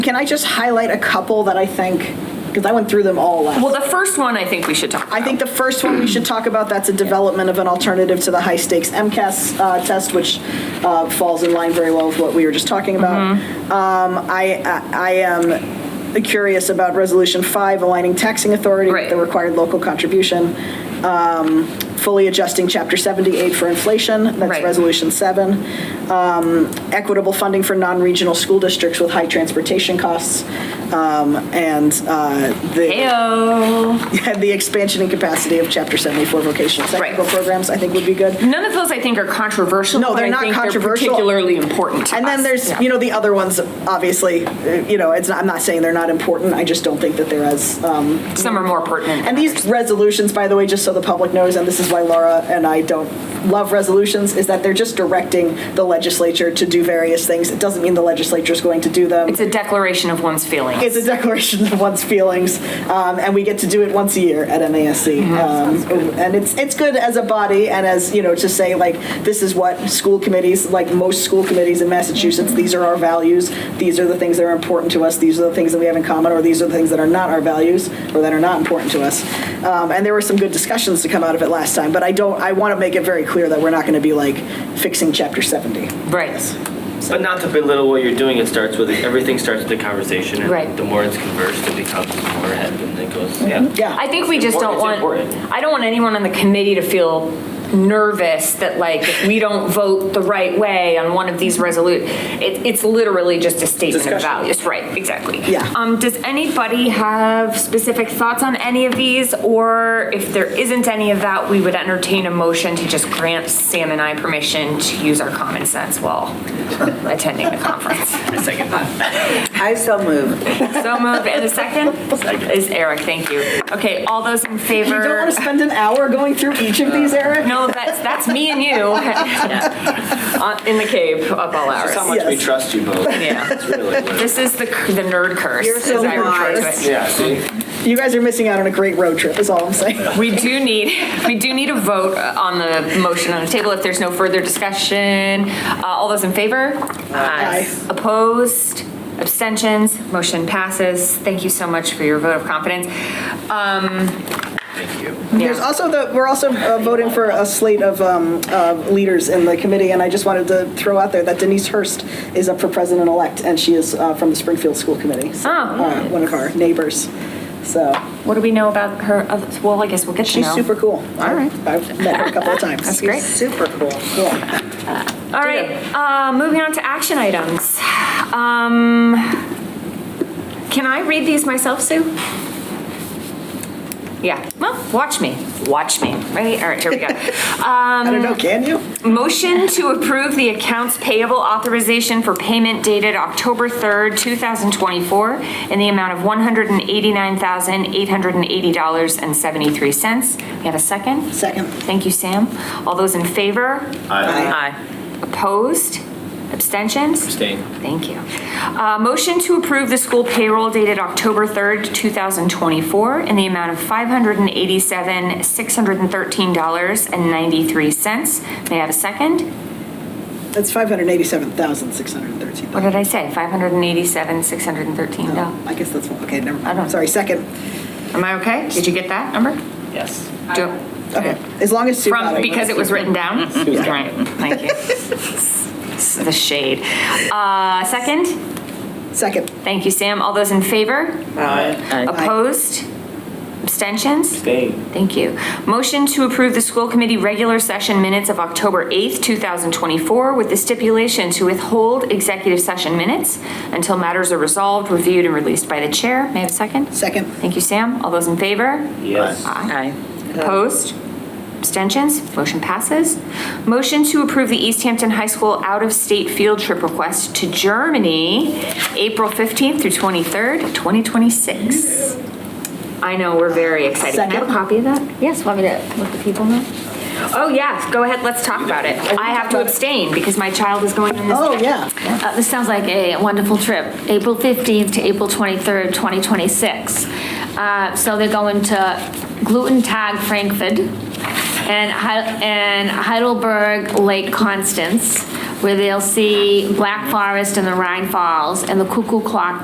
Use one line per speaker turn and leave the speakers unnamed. Can I just highlight a couple that I think, because I went through them all last.
Well, the first one I think we should talk about.
I think the first one we should talk about, that's a development of an alternative to the high-stakes MCAS uh, test, which uh, falls in line very well with what we were just talking about.
Mm-hmm.
Um, I, I I am curious about Resolution 5, aligning taxing authority with the
Right.
required local contribution, Um, fully adjusting Chapter 78 for inflation, that's
Right.
Resolution 7, Um, equitable funding for non-regional school districts with high transportation costs, um, and uh, the
Heyo.
had the expansion and capacity of Chapter 74 vocational technical
Right.
programs, I think would be good.
None of those I think are controversial.
No,
but
they're
I
not
think
controversial.
particularly important to
And then
us.
there's,
Yeah.
you know, the other ones, obviously, uh, you know, it's not, I'm not saying they're not important, I just don't think that they're as, um,
Some are more pertinent.
and these resolutions, by the way, just so the public knows, and this is why Laura and I don't love resolutions, is that they're just directing the legislature to do various things. It doesn't mean the legislature's going to do them.
It's a declaration of one's feelings.
It's a declaration of one's feelings, um, and we get to do it once a year at MASC. Um, and it's it's good as a body, and as you know, to say like this is what school committees, like most school committees in Massachusetts, these are our values. These are the things that are important to us. These are the things that we have in common, or these are the things that are not our values, or that are not important to us. Um, and there were some good discussions to come out of it last time, but I don't. I want to make it very clear that we're not going to be like fixing Chapter 70.
Right.
But not to belittle what you're doing, it starts with, everything starts with a conversation. and
Right.
The more it's conversed, it becomes more head and it goes, yeah.
Yeah.
I think we just don't
It's
want,
important.
I don't want anyone on the committee to feel nervous that like, if we don't vote the right way on one of these resolute, it, it's literally just a statement of
Discussion.
values, right, exactly.
Yeah.
Um, does anybody have specific thoughts on any of these? Or if there isn't any of that, we would entertain a motion to just grant Sam and I permission to use our common sense while attending the conference.
Second that.
I so move.
So moved, and a second? Is Eric, thank you. Okay, all those in favor?
You don't want to spend an hour going through each of
Uh,
these, Eric.
No, that's, that's me and you. Uh, In the cave up all
That's how
hours.
much we
Yes.
trust you both.
Yeah.
That's really what it is.
This is the, c- the nerd curse.
You're so
as I refer to
wise.
it.
Yeah, see?
You guys are missing out on a great road trip, is all I'm saying.
We do need, we do need a vote uh, on the motion on the table if there's no further discussion. Uh, All those in favor?
Aye.
Opposed? Abstentions? Motion passes. Thank you so much for your vote of confidence. Um,
Thank you.
There's also the, we're also uh, voting for a slate of um, uh, leaders in the committee, and I just wanted to throw out there that Denise Hurst is up for president-elect, and she is uh, from the Springfield School Committee. so,
Oh.
uh, One of our neighbors, so
What do we know about her? oth- Well, I guess we'll get to know.
she's super cool.
All right.
I've I've met her a couple of times. That's
great.
Super cool. Yeah.
All right, uh, moving on to action items. Um, Can I read these myself, Sue? Yeah, well, watch me, watch me, ready? All right, here we go. Uh,
I don't
Um,
know, can you?
Motion to approve the accounts payable authorization for payment dated October 3rd, 2024, in the amount of $189,880.73. You have a second?
Second.
Thank you, Sam. All those in favor?
Aye.
Aye. Opposed? Abstentions?
Abstain.
Thank you. Uh, Motion to approve the school payroll dated October 3rd, 2024, in the amount of $587,613.93. May I have a second?
That's 587,613.
What did I say? $587,613.
I guess that's, one. okay, never
I don't-
mind. Sorry, second.
Am I okay? Did you get that number?
Yes.
Do-
Okay, as long as Sue got
From,
it.
because it was written down?
Yeah.
Right, thank you. It's The shade. Uh, Second?
Second.
Thank you, Sam. All those in favor?
Aye.
Opposed? Abstentions?
Abstain.
Thank you. Motion to approve the school committee regular session minutes of October 8th, 2024, with the stipulation to withhold executive session minutes until matters are resolved, reviewed, and released by the chair. May I have a second?
Second.
Thank you, Sam. All those in favor?
Yes.
Aye. Opposed? Abstentions? Motion passes. Motion to approve the East Hampton High School out-of-state field trip request to Germany, April 15th through 23rd, 2026. I know, we're very excited. Can I have a
Second.
copy of that? Yes, want me to let the people know? Oh, yes, go ahead, let's talk about it. I have to abstain because my child is going on this
Oh,
trip.
yeah.
Uh, This sounds like a wonderful trip, April 15th to April 23rd, 2026. Uh, So they're going to Gluten Tag Frankfurt and Hei- and Heidelberg Lake Constance, where they'll see Black Forest and the Rhine Falls and the Cuckoo Clock